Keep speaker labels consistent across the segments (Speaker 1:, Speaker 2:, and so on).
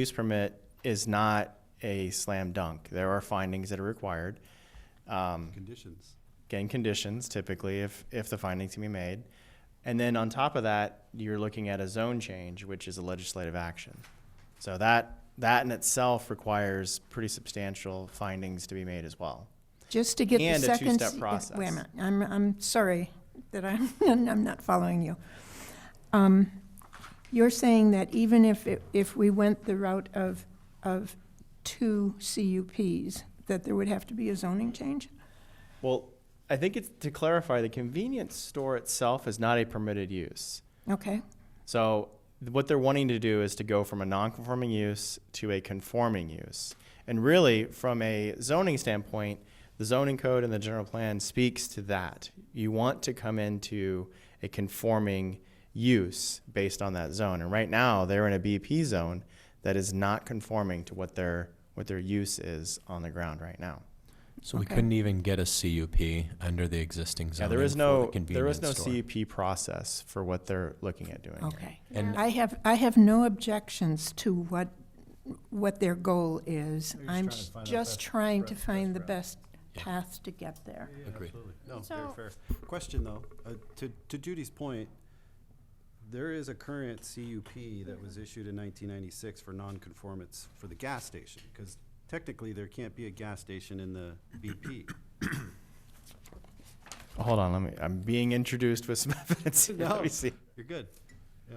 Speaker 1: use permit is not a slam dunk. There are findings that are required. Um,
Speaker 2: Conditions.
Speaker 1: again, conditions typically if, if the findings can be made. And then on top of that, you're looking at a zone change, which is a legislative action. So that, that in itself requires pretty substantial findings to be made as well.
Speaker 3: Just to get the
Speaker 1: And a
Speaker 3: second.
Speaker 1: two-step
Speaker 3: se-
Speaker 1: process.
Speaker 3: Wait a minute, I'm, I'm sorry that I'm, I'm not following you. Um, You're saying that even if, it- if we went the route of, of two CUPs, that there would have to be a zoning change?
Speaker 1: Well, I think it's to clarify, the convenience store itself is not a permitted use.
Speaker 3: Okay,
Speaker 1: So th- what they're wanting to do is to go from a non-conforming use to a conforming use. And really, from a zoning standpoint, the zoning code and the general plan speaks to that. You want to come into a conforming use based on that zone. And right now, they're in a BP zone that is not conforming to what their what their use is on the ground right now.
Speaker 4: So we
Speaker 3: Okay.
Speaker 4: couldn't even get a CUP under the existing
Speaker 1: Yeah,
Speaker 4: zoning.
Speaker 1: there is
Speaker 4: for
Speaker 1: no
Speaker 4: the
Speaker 1: there is
Speaker 4: convenience
Speaker 1: no
Speaker 4: store.
Speaker 1: CUP process for what they're looking at doing. here.
Speaker 3: okay.
Speaker 4: And-
Speaker 3: I have, I have no objections to what, what their goal is.
Speaker 5: We're just trying
Speaker 3: I'm
Speaker 5: to find the
Speaker 3: just
Speaker 5: best-
Speaker 3: trying to
Speaker 5: best-
Speaker 3: find
Speaker 5: best
Speaker 3: the
Speaker 5: route.
Speaker 3: best
Speaker 4: Yeah.
Speaker 3: path to get there.
Speaker 4: Agreed.
Speaker 2: No,
Speaker 6: very So-
Speaker 5: fair.
Speaker 2: Question though, uh, to, to Judy's point, there is a current CUP that was issued in nineteen ninety-six for nonconformance for the gas station, because technically there can't be a gas station in the BP.
Speaker 1: Hold on, let me. I'm being introduced with some evidence. Here. Let
Speaker 2: No.
Speaker 1: me see.
Speaker 2: You're good. Yeah.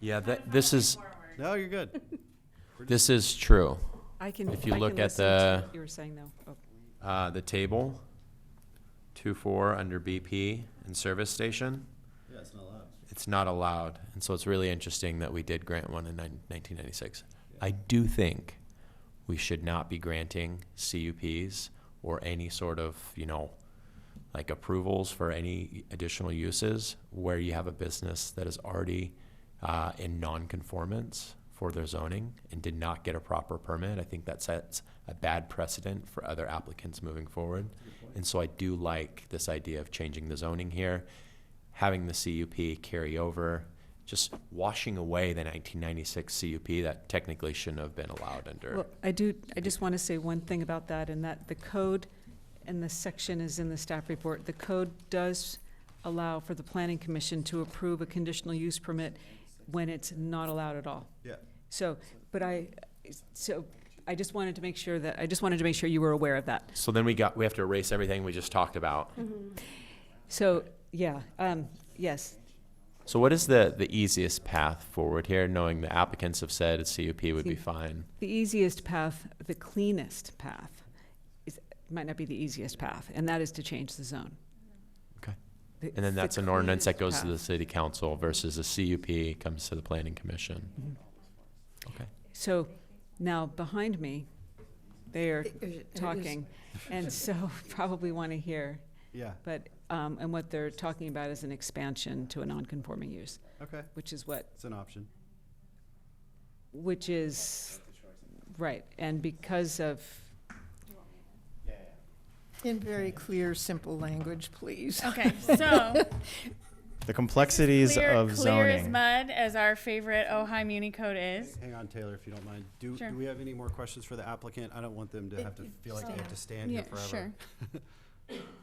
Speaker 4: Yeah, that, this is,
Speaker 2: No, you're good.
Speaker 4: this is true.
Speaker 6: I can,
Speaker 4: If you
Speaker 6: I
Speaker 4: look
Speaker 6: can
Speaker 4: at
Speaker 6: listen to
Speaker 4: the-
Speaker 6: what you were saying though. Oh,
Speaker 4: Uh, the table, two four under BP and service station,
Speaker 2: Yeah, it's not allowed.
Speaker 4: it's not allowed. And so it's really interesting that we did grant one in nine- 1996. I do think we should not be granting CUPs or any sort of, you know, like approvals for any additional uses where you have a business that is already uh, in nonconformance for their zoning and did not get a proper permit. I think that sets a bad precedent for other applicants moving forward. And so I do like this idea of changing the zoning here, having the CUP carry over, just washing away the 1996 CUP that technically shouldn't have been allowed under.
Speaker 6: Well, I do, I just want to say one thing about that and that the code, and the section is in the staff report, the code does allow for the planning commission to approve a conditional use permit when it's not allowed at all.
Speaker 2: Yeah.
Speaker 6: So, but I, so I just wanted to make sure that, I just wanted to make sure you were aware of that.
Speaker 4: So then we got, we have to erase everything we just talked about.
Speaker 6: So, yeah, um, yes,
Speaker 4: So what is the, the easiest path forward here, knowing the applicants have said a CUP would be fine?
Speaker 6: The easiest path, the cleanest path, is, might not be the easiest path, and that is to change the zone.
Speaker 4: Okay.
Speaker 6: The-
Speaker 4: And then
Speaker 6: the
Speaker 4: that's an ordinance that goes
Speaker 6: cleanest
Speaker 4: to the city council versus a CUP comes to the planning commission. Okay.
Speaker 6: path. So now behind me, they are
Speaker 3: It- it is-
Speaker 6: talking, and so probably want to hear,
Speaker 2: Yeah,
Speaker 6: but, um, and what they're talking about is an expansion to a non-conforming use,
Speaker 2: okay,
Speaker 6: which is what
Speaker 2: it's an option.
Speaker 6: which is right, and because of
Speaker 3: In very clear, simple language, please.
Speaker 7: Okay, so
Speaker 1: The complexities
Speaker 7: clear,
Speaker 1: of
Speaker 7: clear as
Speaker 1: zoning.
Speaker 7: mud as our favorite Ojai Muni code is.
Speaker 2: Hang on, Taylor, if you don't mind. Do,
Speaker 7: Sure.
Speaker 2: do we have any more questions for the applicant? I don't want them to have to feel like they have to stand here forever.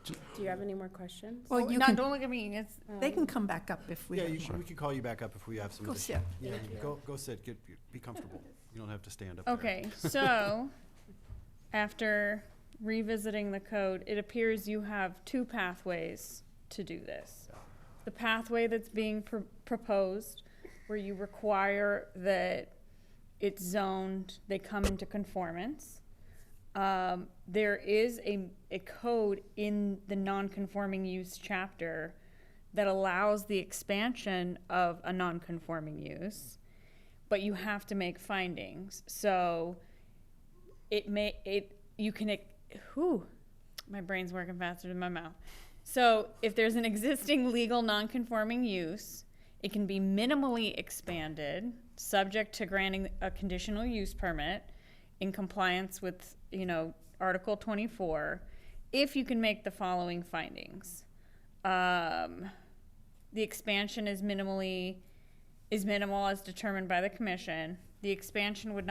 Speaker 8: Do you have any more questions?
Speaker 3: Well,
Speaker 7: Oh,
Speaker 3: you
Speaker 7: not,
Speaker 3: can,
Speaker 7: don't look at me. It's
Speaker 3: they can come back up if we
Speaker 2: Yeah,
Speaker 3: have
Speaker 2: you, we could call you back up if we have some.
Speaker 3: Go
Speaker 2: additional-
Speaker 3: sit.
Speaker 2: Yeah, you go, go sit, get, be comfortable. You don't have to stand up there.
Speaker 7: okay. So, after revisiting the code, it appears you have two pathways to do this. The pathway that's being pr- proposed, where you require that it's zoned, they come into conformance. Um, there is a, a code in the non-conforming use chapter that allows the expansion of a non-conforming use, but you have to make findings. So it may it you can ex- whew, my brain's working faster than my mouth. So if there's an existing legal non-conforming use, it can be minimally expanded, subject to granting a conditional use permit in compliance with, you know, Article 24, if you can make the following findings. Um, the expansion is minimally is minimal as determined by the commission. The expansion would not